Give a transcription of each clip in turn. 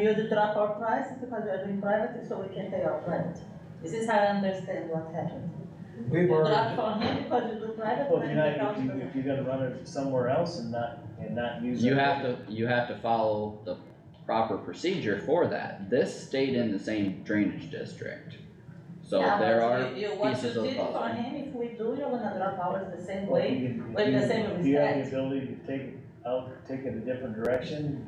You do drop our prices because we are doing private, so we can pay our rent. This is how I understand what happened. We You were, drop for me because you do private, Well, if rent you're not, accounts if you, for me. if you're gonna run it somewhere else and not, and not use. You it- have to, you have to follow the proper procedure for that. This stayed in the same drainage district. So Yeah, there but are, you- you- What you pieces of did for puzzle. him, if we do, you're gonna drop ours the same Well, way. if you can- if with the you- same If you have respect. the ability to take it out, take it a different direction,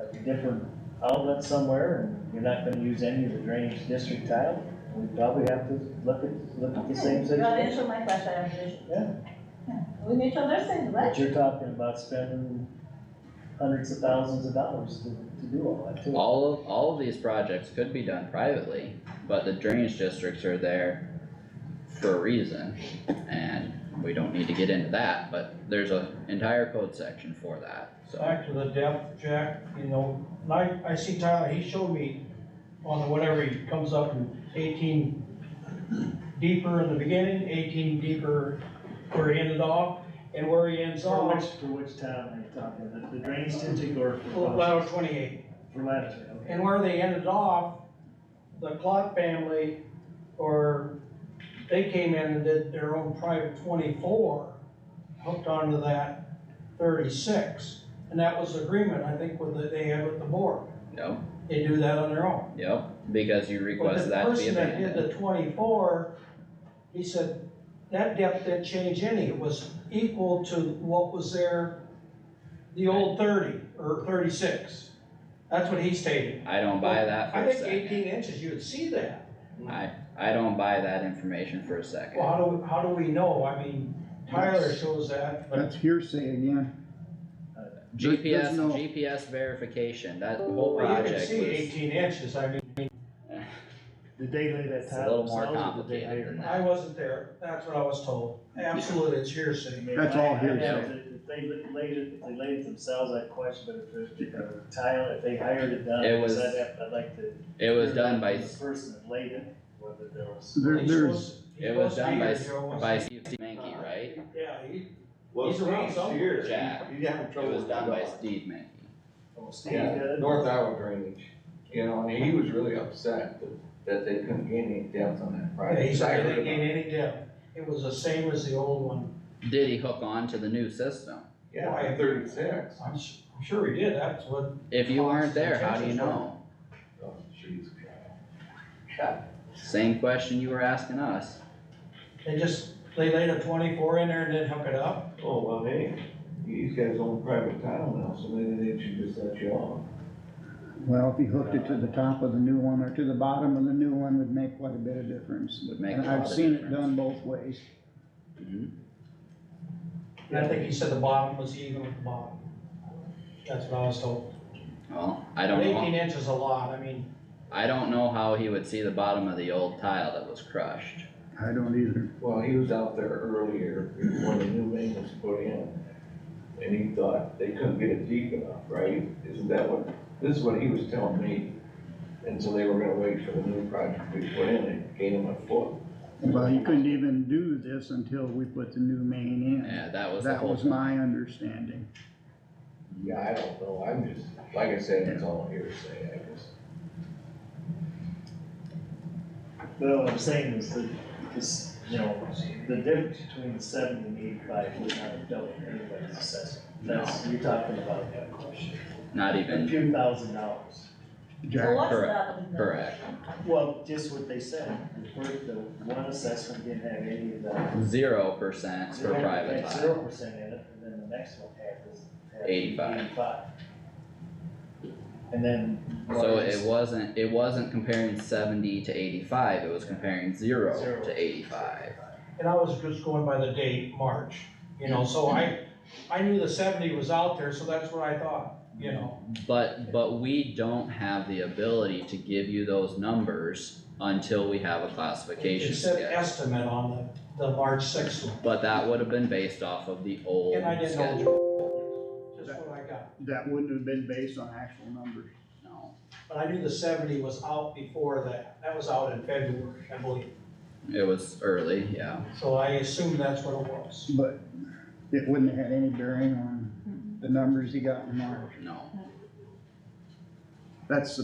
a different outlet somewhere, and you're not gonna use any of the drainage district tile, we probably have to look at, look at the same You are situation. answering my question, I appreciate. it. Yeah. Yeah, We need to understand, But right? you're talking about spending hundreds of thousands of dollars to, to do all that too. all of, all of these projects could be done privately, but the drainage districts are there for a reason. And we don't need to get into that, but there's an entire code section for that, so. Back to the depth, Jack, you know, I, I see Tyler, he showed me on whatever, he comes up in eighteen deeper in the beginning, eighteen deeper where he ended off, and where he ends For which, off, for which town are you talking, the, the drainage district or for? lateral twenty-eight. For Lattiser, okay. And where they ended off, the Clark family, or they came in and did their own private twenty-four, hooked onto that thirty-six, and that was agreement, I think, with, the- they had with the board. Yep, they do that on their own. yep, because you But request the that to be person that did abandoned. the twenty-four, he said, that depth didn't change any, it was equal to what was there, the old thirty, or thirty-six. That's what he stated. I don't buy that for I a think eighteen second. inches, you would see that. I, I don't buy that information for a second. Well, how do, how do we know? I mean, Tyler shows that, but That's hearsay again. There- there's GPS, no- GPS verification, that whole you project can was, see eighteen inches, I mean, Did they lay that It's a tile little more themselves or did they complicated hire? than I wasn't there, that's what I was told. Absolutely, it's I hearsay. mean, That's I- all I hearsay. doubt that If they li- laid it, if they laid it themselves, I'd question, but if it- if it tile, if they hired it done, It I'd was- have, I'd like to. it was done by, The person that laid it, whether there was. There, He's there's, supposed- he's it supposed was to done be by, here, Joe wasn't by he? Steve Mankey, right? Yeah, he, Well, He's around Steve's somewhere. here, Jack. he's having It trouble. was with done by the dog. Steve Mankey. Oh, Steve did Yeah, it? North Iowa drainage, you know, and he was really upset that, that they couldn't gain any depth on that Yeah, project. He I said heard they about gained it. any depth, it was the same as the old one. Did he hook on to the new system? Yeah, thirty-six. I'm su- I'm sure he did, that's what, If you weren't Costs and there, how do you chances were- know? Oh, jeez. Same question you were asking us. they just, they laid a twenty-four in there and then hook it up. Oh, well, hey, he's got his own private tile now, so maybe they should just let you off. well, if you hooked it to the top of the new one or to the bottom of the new one would make quite a bit of difference. Would make And a lot I've of seen it difference. done both ways. Mhm. And I think he said the bottom was even with the bottom. That's what I was told. Well, I But don't Eighteen know, inches is a lot, I mean, I don't know how he would see the bottom of the old tile that was crushed. I don't either. Well, he was out there earlier when the new main was put in, and he thought they couldn't get it deep enough, right? Isn't that what, this is what he was telling me, and so they were gonna wait for the new project to be put in and gain him a foot. Well, you couldn't even do this until we put the new main in. Yeah, that was the That whole, was my understanding. Yeah, I don't know, I'm just, like I said, it's all hearsay, I just. But what I'm saying is that, this, you know, the difference between the seventy and eighty-five would not have dealt with anybody's assessment. That's, you're talking about not a even, few thousand dollars. So Jack, what's correct, that? with that? correct. Well, just what they said, the first, the one assessment didn't have any of that. Zero percent for private tile. Zero percent in it, and then the next one had this. had 85. Eighty-five. And then. So it wasn't, it wasn't comparing seventy to eighty-five, it was comparing zero Zero. to eighty-five. and I was just going by the date, March, you know, so I, I knew the seventy was out there, so that's what I thought, you know. But, but we don't have the ability to give you those numbers until we have a classification It said schedule. estimate on the, the March sixth one, But that would have been based off of the old and I didn't know. schedule. Just what I got. that wouldn't have been based on actual numbers. No, But I knew the seventy was out before that, that was out in February, I believe, it was early, yeah. so I assume that's what it was. But it wouldn't have had any bearing on the numbers he got in March. No. that's the